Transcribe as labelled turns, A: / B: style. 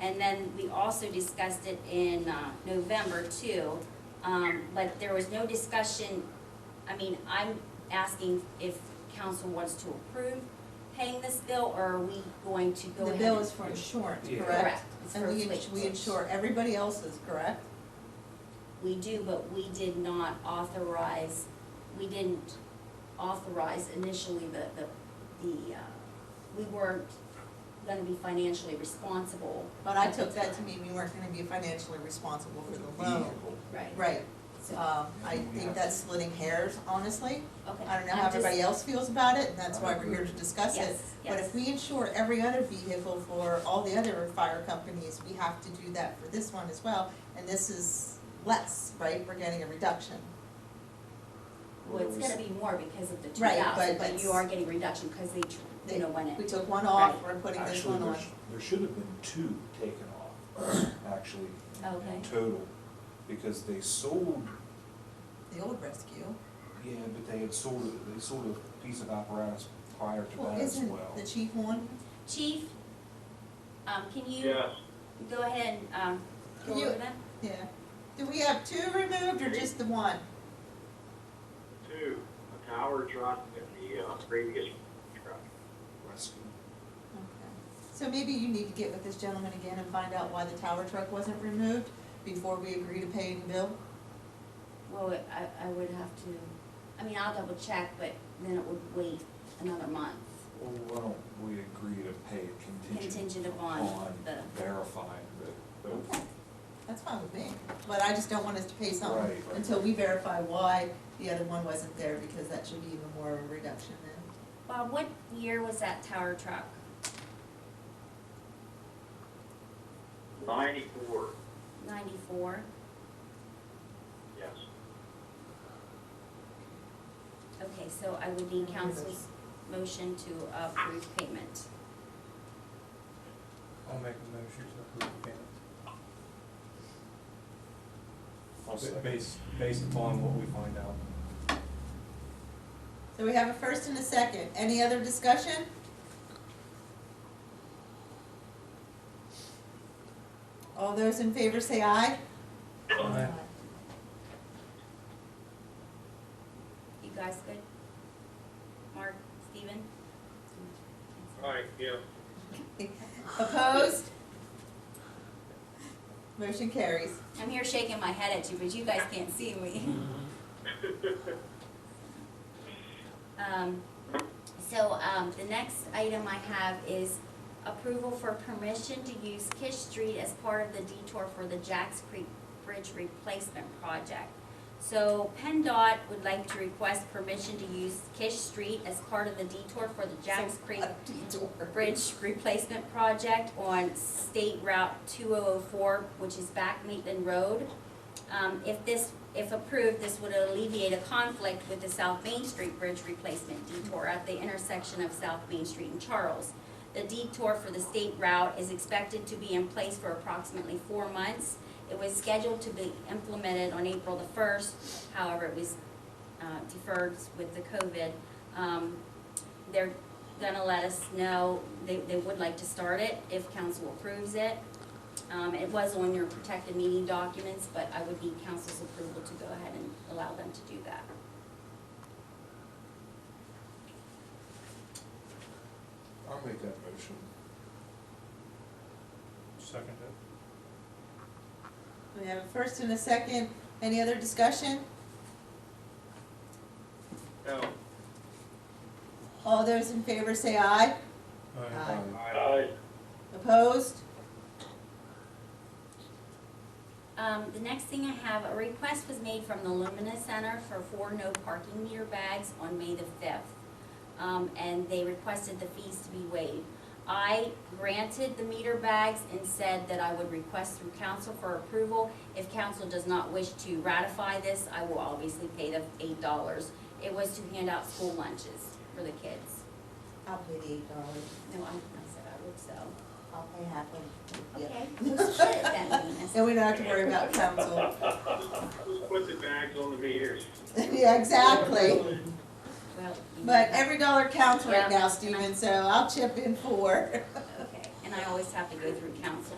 A: And then we also discussed it in, uh, November too, um, but there was no discussion, I mean, I'm asking if council wants to approve paying this bill, or are we going to go
B: The
A: ahead?
B: bill
A: and-
B: is for insurance,
C: Yeah.
B: correct?
A: It's
B: And
A: for
B: we,
A: fleet.
B: ins- we insure everybody else's, correct?
A: We do, but we did not authorize, we didn't authorize initially the, the, the, uh, we weren't gonna be financially responsible.
B: But I took that to mean we weren't gonna be financially responsible for the loan.
A: Right.
B: Right,
A: So,
B: um, I think that's splitting hairs, honestly.
A: okay.
B: I don't know
A: I'm
B: how
A: just-
B: everybody else feels about it, and that's why we're here to discuss it.
A: Yes,
B: But
A: yes.
B: if we insure every other vehicle for all the other fire companies, we have to do that for this one as well. And this is less, right? We're getting a reduction.
A: Well, it's gonna be more because of the two
B: Right,
A: thousand,
B: but
A: but you
B: that's-
A: are getting reduction because they, tr-
B: They-
A: you know, went
B: We
A: in.
B: took one off,
A: Right.
B: we're putting this
C: Actually,
B: one on.
C: there, sh- there should have been two taken off, actually, in-
A: Okay.
C: in total, because they sold,
B: The old rescue.
C: yeah, but they had sold, a- they sold a piece of apparatus prior to
B: Well,
C: that as
B: isn't
C: well.
B: the chief one?
A: Chief, um, can you
D: Yes,
A: go ahead and, um, go
B: Can you-
A: over that?
B: Yeah. Do we have two removed or just the one?
D: two, a tower truck and the uh, previous truck.
C: Rescue.
B: Okay. So maybe you need to get with this gentleman again and find out why the tower truck wasn't removed before we agree to pay any bill?
A: Well, I, I would have to, I mean, I'll double check, but then it would wait another month
C: Well, why don't we agree to pay a contingent?
A: contingent upon the.
C: verifying that, that,
B: Okay, that's fine with me, but I just don't want us to pay something
C: Right, right.
B: until we verify why the other one wasn't there, because that should be even more of a reduction then.
A: Bob, what year was that tower truck?
D: Ninety-four,
A: Ninety-four?
D: yes.
A: Okay, so I would need council's motion to approve payment.
E: I'll make a motion to approve the payment.
C: I'll
E: Ba-
C: second.
E: Based, based upon what we find out.
B: So we have a first and a second, any other discussion? All those in favor say aye.
E: Aye.
A: You guys good? Mark, Steven?
D: Right, yeah.
B: Opposed? Motion carries.
A: I'm here shaking my head at you, but you guys can't see me. Um, so, um, the next item I have is approval for permission to use Kish Street as part of the detour for the Jacks Creek Bridge Replacement Project. So PennDOT would like to request permission to use Kish Street as part of the detour for the Jacks Creek
B: A detour.
A: bridge replacement project on State Route two oh oh four, which is back Maitland Road. Um, if this, if approved, this would alleviate a conflict with the South Main Street Bridge Replacement Detour at the intersection of South Main Street and Charles. The detour for the state route is expected to be in place for approximately four months. It was scheduled to be implemented on April the first, however, it was, uh, deferred with the COVID. Um, they're gonna let us know, they, they would like to start it if council approves it. Um, it was on your protected meeting documents, but I would need council's approval to go ahead and allow them to do that.
C: I'll make that motion.
E: Second it.
B: We have a first and a second. Any other discussion?
D: No.
B: All those in favor say aye. Aye.
D: Aye.
B: Opposed?
A: Um, the next thing I have, a request was made from the Lumina Center for four no parking meter bags on May the fifth. Um, and they requested the fees to be waived. I granted the meter bags and said that I would request through council for approval. If council does not wish to ratify this, I will obviously pay the eight dollars. It was to hand out school lunches for the kids.
B: I'll pay the eight dollars.
A: No, I, I said I would so.
B: I'll pay half of it.
A: Okay, well, shit then, Venus.
B: And we don't have to worry about council.
D: Put the bags on the meters.
B: Yeah, exactly.
A: Well, you
B: But
A: know.
B: every dollar counts right
A: Yeah.
B: now, Stephen, so I'll chip in four.
A: Okay, and I always have to go through council